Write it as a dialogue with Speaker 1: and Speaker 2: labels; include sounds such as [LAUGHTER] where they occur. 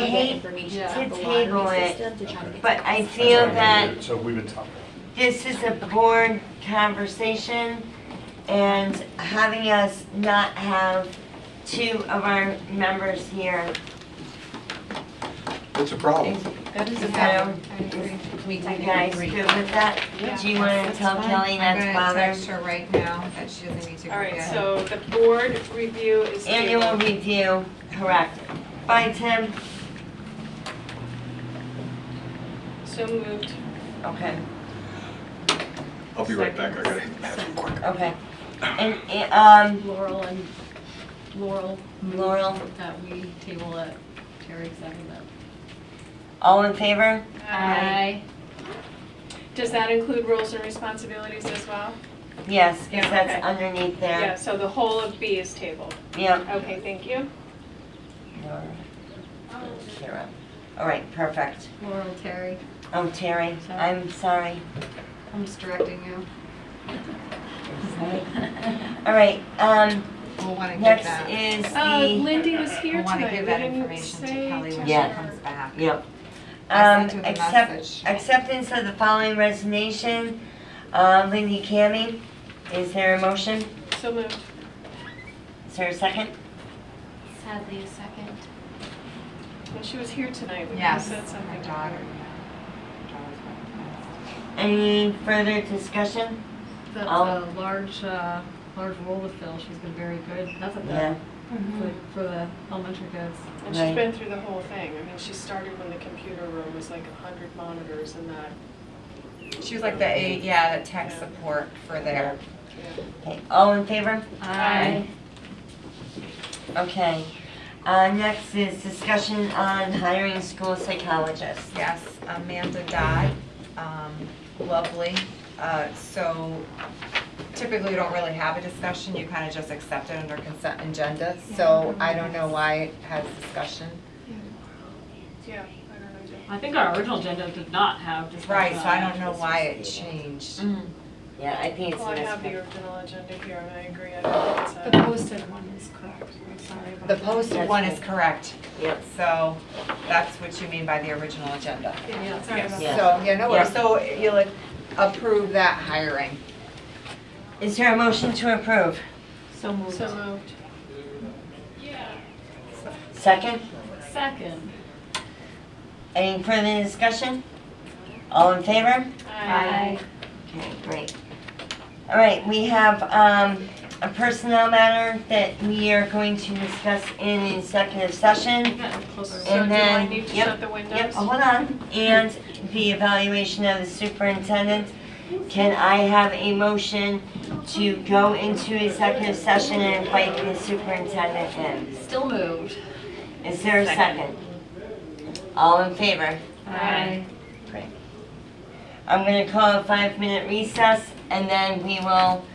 Speaker 1: I hate to table it, but I feel that
Speaker 2: So we've been talking.
Speaker 1: this is a board conversation and having us not have two of our members here
Speaker 2: It's a problem.
Speaker 1: is,
Speaker 3: That is
Speaker 1: you
Speaker 3: a
Speaker 1: know,
Speaker 3: problem.
Speaker 1: is you guys good with that?
Speaker 3: Yeah.
Speaker 1: Do you wanna tell Kelly not to
Speaker 4: I'm gonna text
Speaker 1: bother?
Speaker 4: her right now that she doesn't need to go
Speaker 3: All right,
Speaker 4: yet.
Speaker 3: so the board review is
Speaker 1: Annual
Speaker 3: tabled.
Speaker 1: review, correct. Bye, Tim.
Speaker 3: So moved.
Speaker 1: Okay,
Speaker 2: I'll be right back, I gotta have some quick.
Speaker 1: okay. And, and, um,
Speaker 5: Laurel and Laurel,
Speaker 1: Laurel,
Speaker 5: that we table it, Terry seconded it.
Speaker 1: all in favor?
Speaker 3: Does that include roles and responsibilities as well?
Speaker 1: Yes, because
Speaker 3: Yeah,
Speaker 1: that's
Speaker 3: okay.
Speaker 1: underneath
Speaker 3: Yeah,
Speaker 1: there.
Speaker 3: so the whole of B is tabled.
Speaker 1: Yep.
Speaker 3: Okay, thank you.
Speaker 1: Kira. All right, perfect.
Speaker 5: Laurel, Terry,
Speaker 1: Oh, Terry,
Speaker 5: Sorry.
Speaker 1: I'm sorry.
Speaker 4: I'm just directing you.
Speaker 1: [LAUGHS] All right, um,
Speaker 4: We'll wanna get
Speaker 1: next
Speaker 4: that.
Speaker 1: is
Speaker 3: Uh,
Speaker 1: the,
Speaker 3: Lindy was here
Speaker 4: We'll wanna
Speaker 3: tonight, we
Speaker 4: give that
Speaker 3: didn't
Speaker 4: information to Kelly
Speaker 3: say.
Speaker 4: when she
Speaker 1: Yeah.
Speaker 4: comes back.
Speaker 1: yep.
Speaker 4: I
Speaker 1: Um,
Speaker 4: sent her the
Speaker 1: accept,
Speaker 4: message.
Speaker 1: acceptance of the following resignation, uh, Lindy Cammy. Is there a motion?
Speaker 3: So moved.
Speaker 1: Is there a second?
Speaker 6: Sadly, a second.
Speaker 3: When she was here tonight, we
Speaker 4: Yes,
Speaker 3: said something.
Speaker 4: my
Speaker 3: to
Speaker 4: daughter.
Speaker 3: her.
Speaker 1: Any further discussion?
Speaker 5: that's
Speaker 1: Oh.
Speaker 5: a large, uh, large role with Phil, she's been very good, that's at
Speaker 1: Yeah.
Speaker 5: the, for-
Speaker 4: Mm-hmm.
Speaker 5: for the elementary kids.
Speaker 3: And she's
Speaker 1: Right.
Speaker 3: been through the whole thing. I mean, she started when the computer room was like 100 monitors and that.
Speaker 4: She was like the, A- yeah, the tech support for their,
Speaker 1: Okay, all in favor?
Speaker 3: Aye.
Speaker 1: Okay. Uh, next is discussion on hiring school psychologists.
Speaker 4: yes, Amanda Dodd, um, lovely. Uh, so typically we don't really have a discussion, you kinda just accept it under consent agenda, so I don't know why it has discussion.
Speaker 3: Yeah, I don't know. Jen.
Speaker 7: I think our original agenda did not have discussion.
Speaker 4: Right, so I
Speaker 7: on
Speaker 4: don't know
Speaker 7: it.
Speaker 4: why it changed.
Speaker 1: Yeah, I think
Speaker 4: Oh,
Speaker 1: it's
Speaker 3: Well,
Speaker 1: a
Speaker 3: I have the
Speaker 1: misprint.
Speaker 3: original agenda here and I agree. I don't think it's
Speaker 6: The
Speaker 3: a-
Speaker 6: posted one is correct. I'm sorry about
Speaker 4: The
Speaker 6: that.
Speaker 4: posted one is correct,
Speaker 1: Yep.
Speaker 4: so that's what you mean by the original agenda.
Speaker 6: Yeah, sorry about
Speaker 1: Yeah.
Speaker 6: that.
Speaker 4: So, yeah, no worries,
Speaker 1: Yeah.
Speaker 4: so you'll approve that hiring.
Speaker 1: Is there a motion to approve?
Speaker 6: So moved.
Speaker 3: So moved.
Speaker 1: Second?
Speaker 5: Second.
Speaker 1: Any further discussion? All in favor?
Speaker 3: Aye.
Speaker 1: Okay, great. All right, we have um, a personnel matter that we are going to discuss in executive session.
Speaker 3: So
Speaker 1: And
Speaker 3: do I
Speaker 1: then-
Speaker 3: need to
Speaker 1: yep,
Speaker 3: shut the windows?
Speaker 1: Yep, oh, hold on. And the evaluation of the superintendent. Can I have a motion to go into executive session and invite the superintendent in?
Speaker 5: Still moved.
Speaker 1: Is there a second? All in favor?
Speaker 5: Aye.
Speaker 1: I'm gonna call a five-minute recess, and then we will